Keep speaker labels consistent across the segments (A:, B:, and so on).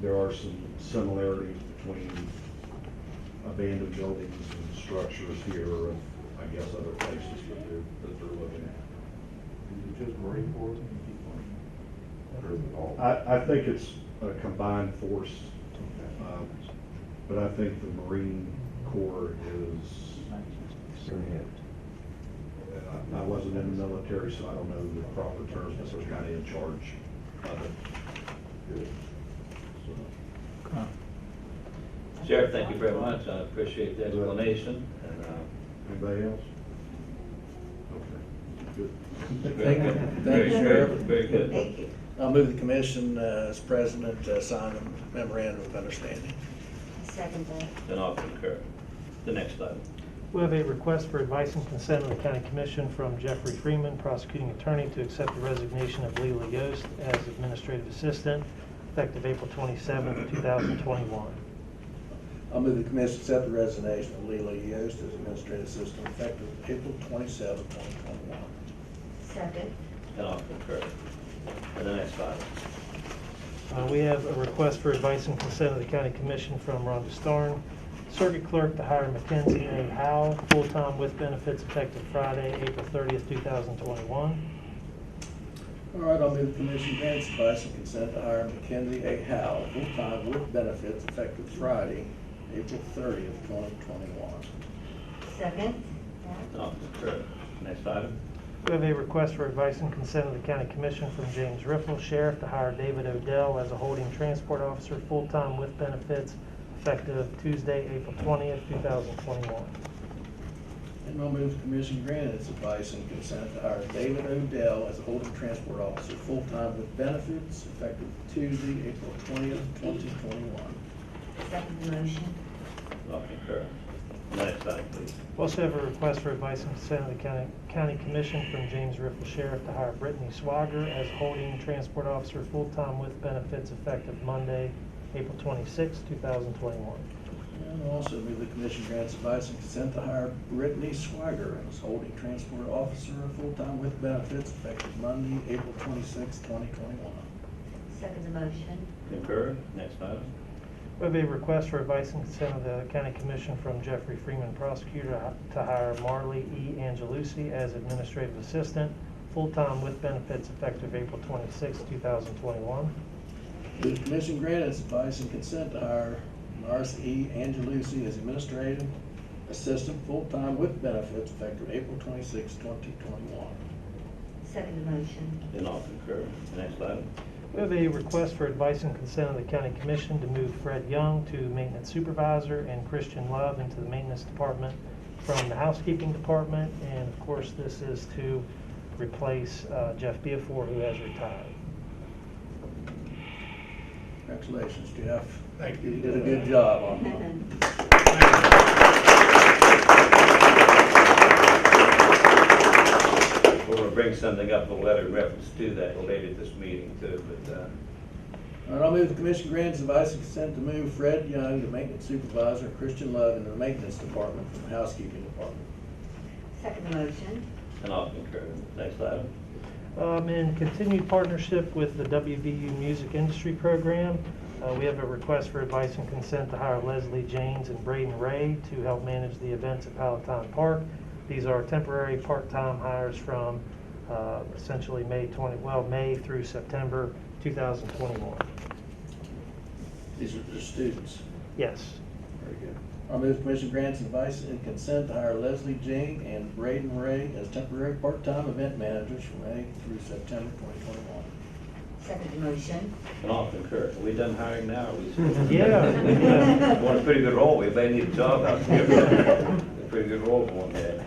A: there are some similarities between abandoned buildings and structures here and I guess other places that they're, that they're looking at.
B: Is it just Marine Corps? Or is it all?
C: Uh,
A: I, I think it's a combined force,
B: Okay.
A: um, but I think the Marine Corps is, I- I wasn't in the military, so I don't know the proper terms, but they're kind of in charge of it.
B: Good.
A: So.
D: Sheriff, thank you very much. I appreciate the explanation. and, uh,
A: Anybody else? Okay, good.
D: very
C: Thank
D: good.
C: you,
D: Very good,
C: Sheriff.
D: Very good.
E: Thank you.
C: I'll move the commission uh, as president to sign the memorandum of understanding.
E: Second uh, that.
D: Then I'll concur. The next item.
F: We have a request for advice and consent of the county commission from Jeffrey Freeman, prosecuting attorney, to accept the resignation of Leila Yost as administrative assistant effective April 27, 2021.
C: I'll move the commission accept the resignation of Leila Yost as administrative assistant effective April 27, 2021.
E: Second.
D: Then I'll concur. And the next item.
F: Uh, We have a request for advice and consent of the county commission from Rhonda Starn, circuit clerk, to hire Mackenzie A. Howe, full-time with benefits effective Friday, April 30th, 2021.
C: All right, I'll move the commission grants advice and consent to hire Mackenzie A. Howe, full-time with benefits effective Friday, April 30th, 2021.
E: Second.
D: Then I'll concur. Next item.
F: We have a request for advice and consent of the county commission from James Riffle, sheriff, to hire David Odell as a holding transport officer, full-time with benefits, effective Tuesday, April 20th, 2021.
C: And I'll move the commission grant its advice and consent to hire David Odell as a holding transport officer, full-time with benefits, effective Tuesday, April twentieth, twenty twenty-one.
E: Second the motion.
D: Then I'll concur. Next item, please.
F: We also have a request for advice and consent of the county, county commission from James Riffle, sheriff, to hire Brittany Swager as holding transport officer, full-time with benefits, effective Monday, April 26th, 2021.
C: And I'll also move the commission grants advice and consent to hire Brittany Swiger as holding transport officer, full-time with benefits, effective Monday, April twenty-sixth, twenty twenty-one.
E: Second the motion.
D: Concur. Next item.
F: We have a request for advice and consent of the county commission from Jeffrey Freeman prosecutor to hire Marley E. Angelucci as administrative assistant, full-time with benefits effective April 26, 2021.
C: The commission grant its advice and consent to hire Mars E. Angelucci as administrative assistant, full-time with benefits, effective April 26, 2021.
E: Second the motion.
D: Then I'll concur. Next item.
F: We have a request for advice and consent of the county commission to move Fred Young to maintenance supervisor and Christian Love into the maintenance department from the housekeeping department. And of course, this is to replace uh, Jeff Beafor, who has retired.
C: Congratulations, Jeff.
B: Thank
C: You did a good job on that.
D: We're gonna bring something up, a letter in reference to that later this meeting too, but, uh,
C: All right, I'll move the commission grants advice and consent to move Fred Young to maintenance supervisor, and Christian Love into the maintenance department from the housekeeping department.
E: Second the motion.
D: then I'll concur. Next item.
F: Um, In continued partnership with the WVU Music Industry Program, uh, we have a request for advice and consent to hire Leslie Janes and Braden Ray to help manage the events at Palatine Park. These are temporary part-time hires from uh, essentially May 20, well, May through September 2021.
C: These are the students.
F: Yes.
C: Very good. I'll move the commission grants advice and consent to hire Leslie Jane and Braden Ray as temporary part-time event managers from May through September twenty twenty-one.
E: Second the motion.
D: And I'll concur. Are we done hiring now? Are we still-
F: Yeah,
E: yeah.
D: Want a pretty good role. We may need a job out here. A pretty good role for one day.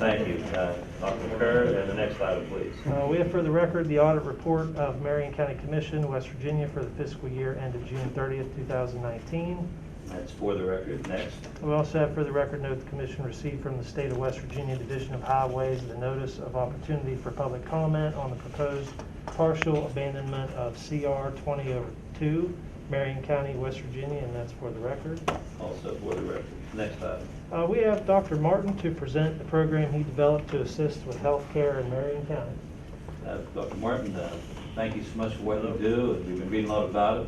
D: Thank you. Uh, I'll concur. And the next item, please.
F: Uh, We have for the record the audit report of Marion County Commission, West Virginia, for the fiscal year ended June 30th, 2019.
D: That's for the record. Next.
F: We also have for the record note the commission received from the state of West Virginia Division of Highways the notice of opportunity for public comment on the proposed partial abandonment of CR 20 over 2, oh Marion County, West Virginia, and that's for the record.
D: Also for the record. Next item.
F: Uh, We have Dr. Martin to present the program he developed to assist with health care in Marion County.
D: Uh, Dr. Martin, uh, thank you so much for what you do. We've been reading a lot about it.